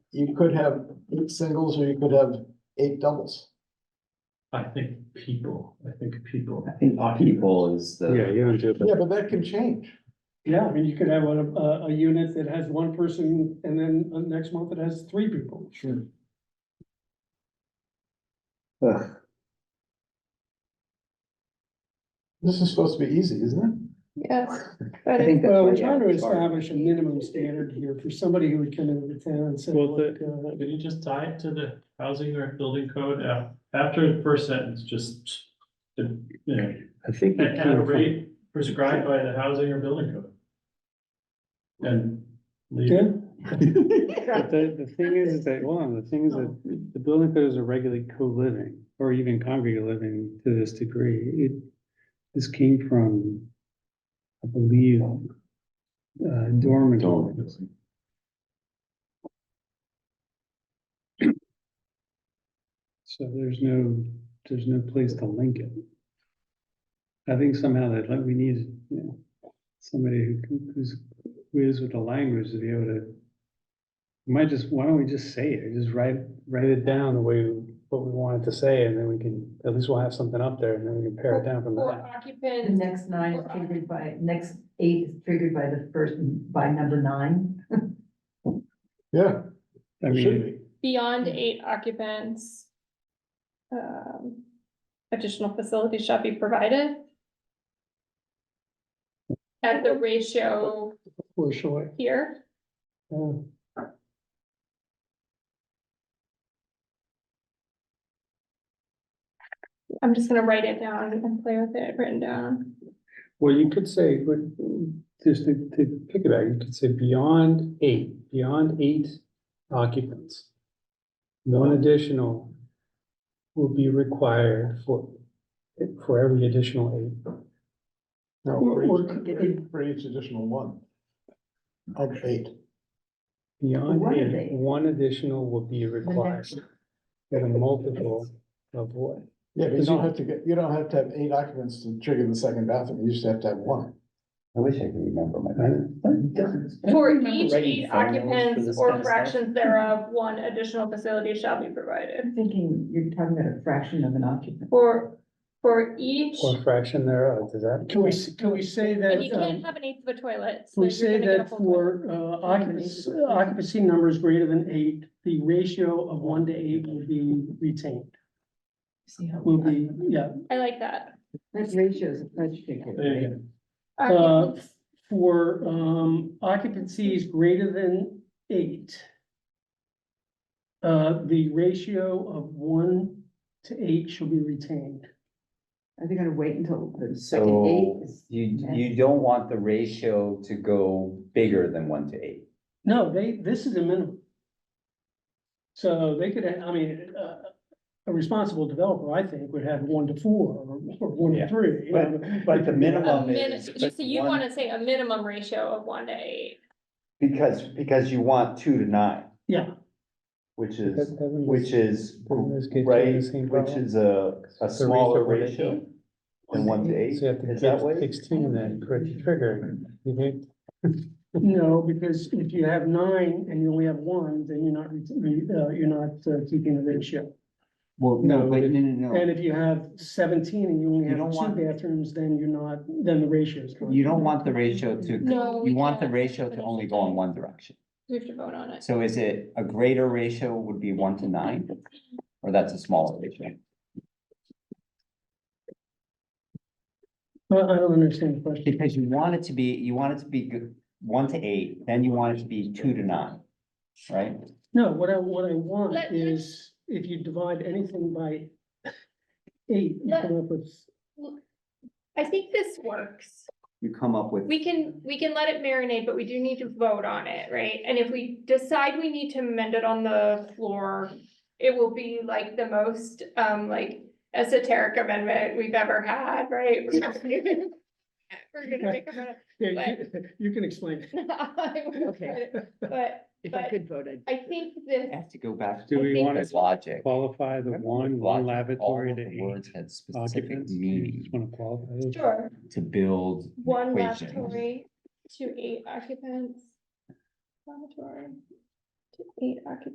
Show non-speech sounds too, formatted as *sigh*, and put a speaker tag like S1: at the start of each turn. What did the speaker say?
S1: you could have eight singles or you could have eight doubles.
S2: I think people, I think people.
S3: I think people is
S4: Yeah,
S3: the,
S4: you don't do it, but
S1: Yeah, but that can change.
S5: Yeah, I mean, you could have a, a, a unit that has one person and then the next month it has three people.
S1: Sure.
S3: Ugh,
S1: This is supposed to be easy, isn't
S6: Yes,
S3: I
S6: but it-
S3: think that's
S5: Well,
S3: where
S5: we're
S3: the
S5: trying to
S3: average are.
S5: establish a minimum standard here for somebody who would come into the town and say,
S2: Well, the-
S5: look, uh,
S2: Can you just tie it to the housing or building code uh, after the first sentence, just. the, You know,
S4: I think.
S2: at at
S4: it
S2: a
S4: came from-
S2: rate prescribed by the housing or building code. And. leave it.
S5: yeah, *laughs*
S4: But the, the thing is, is that, well, the thing is
S5: Oh.
S4: that the building codes are regulate co-living or even congregate living to this degree. It, this came from, I believe, uh, dormitory. So there's no, there's no place to link it. I think somehow that, like, we need, you know, somebody who can- who's, who is with the language to be able to. we Might just, why don't we just say it, just write, write it down the way, what we want it to say, and then we can, at least we'll have something up there, and then we can pare it down from
S7: For
S4: there.
S8: The
S7: occupants,
S8: next nine is triggered by, next eight is triggered by the first, by number nine.
S1: it? Yeah,
S4: I
S1: it should
S4: mean,
S1: be.
S6: beyond eight occupants. Um, additional facilities shall be provided. At the ratio
S5: for sure.
S6: here,
S5: Yeah.
S6: I'm just gonna write it down and play with it written down.
S4: well, you could say, but just to, to pick it out, you could say beyond eight, beyond eight occupants. One additional will be required for, for every additional eight.
S1: No, for each, for each additional one. Of eight.
S4: Beyond
S8: One of
S4: eight,
S8: eight.
S4: one additional will be required.
S8: next-
S4: At a multiple of what?
S1: Yeah, but you don't have to get, you don't have to have eight occupants to trigger the second bathroom. You just have to have one.
S3: I wish I could remember my.
S6: For each eight occupants or fractions thereof, one additional facility shall be provided.
S8: I'm thinking you're talking about a fraction of an occupant.
S6: For, for each,
S4: Or fraction thereof, does that?
S5: Can we, s- can we say that?
S6: and you can't
S5: um,
S6: have an eighth of a toilet. so
S5: Can we
S6: you're
S5: say
S6: gonna get a
S5: that
S6: whole toilet.
S5: for uh, occupancy, occupancy numbers greater than eight, the ratio of one to eight will be retained?
S8: See how-
S5: Will be, yeah,
S6: I like that.
S8: That ratio is a pledge figure.
S2: There you
S8: right?
S2: go.
S5: uh,
S6: Occupants.
S5: for um, occupancies greater than eight. Uh, the ratio of one to eight shall be retained.
S8: Are they gonna wait until the second eight
S3: So
S8: is?
S3: you, you don't want the ratio to go bigger than one to eight.
S5: No, they, this is a minimum. So they could, I mean, uh, a responsible developer, I think, would have one to four or or one to
S3: Yeah.
S5: three. you know.
S3: But, but the
S6: A
S3: minimum
S6: min-
S3: is.
S6: So you wanna say a minimum ratio of one to eight.
S3: Because, because you want two to nine.
S5: Yeah.
S3: Which
S4: That
S3: is,
S4: doesn't-
S3: which is,
S4: doesn't this get you
S3: right,
S4: the same
S3: which
S4: problem?
S3: is a, a
S4: The
S3: smaller
S4: ratio of
S3: ratio than one to eight,
S4: So you have to
S3: is that
S4: get
S3: way?
S4: sixteen then, for it to trigger. You need-
S5: No, because if you have nine and you only have one, then you're not, ret- re- uh, you're not uh, keeping a ratio.
S3: Well,
S4: no, but-
S3: no,
S5: And if you have seventeen and you only
S3: You
S5: have
S3: don't want-
S5: two bathrooms, then you're not, then the ratio is. correct.
S3: You don't want the ratio to,
S6: No.
S3: you want the ratio to only go in one direction.
S6: We have to vote on it.
S3: So is it a greater ratio would be one to nine? Or that's a smaller ratio?
S5: I Uh, I don't understand the question.
S3: Because you want it to be, you want it to be g- one to eight, then you want it to be two to nine, right?
S5: No, what I, what I want
S6: Let- let-
S5: is if you divide anything by eight, you
S6: Let-
S5: come up with
S6: I think this works.
S3: You come up with.
S6: We can, we can let it marinate, but we do need to vote on it, right? And if we decide we need to amend it on the floor, it will be like the most, um, like esoteric amendment we've ever had, right? We're
S2: *laughs*
S6: gonna make *laughs* a,
S5: Yeah, you, *laughs* you can explain.
S6: okay, but
S8: If I
S6: but-
S8: could vote, I'd.
S6: I think this.
S3: I Have to go back.
S4: Do
S3: to
S4: we
S3: the
S4: want to
S3: Logic.
S4: Qualify the one,
S3: Logic,
S4: one
S3: all
S4: lavatory
S3: of
S4: to
S3: the
S4: eight
S3: words had specific
S4: occupants? You
S3: meaning
S4: just want to qualify those?
S6: Sure.
S3: to build. an
S6: One
S3: equation.
S6: lavatory to eight occupants. Lavatory to eight occupants.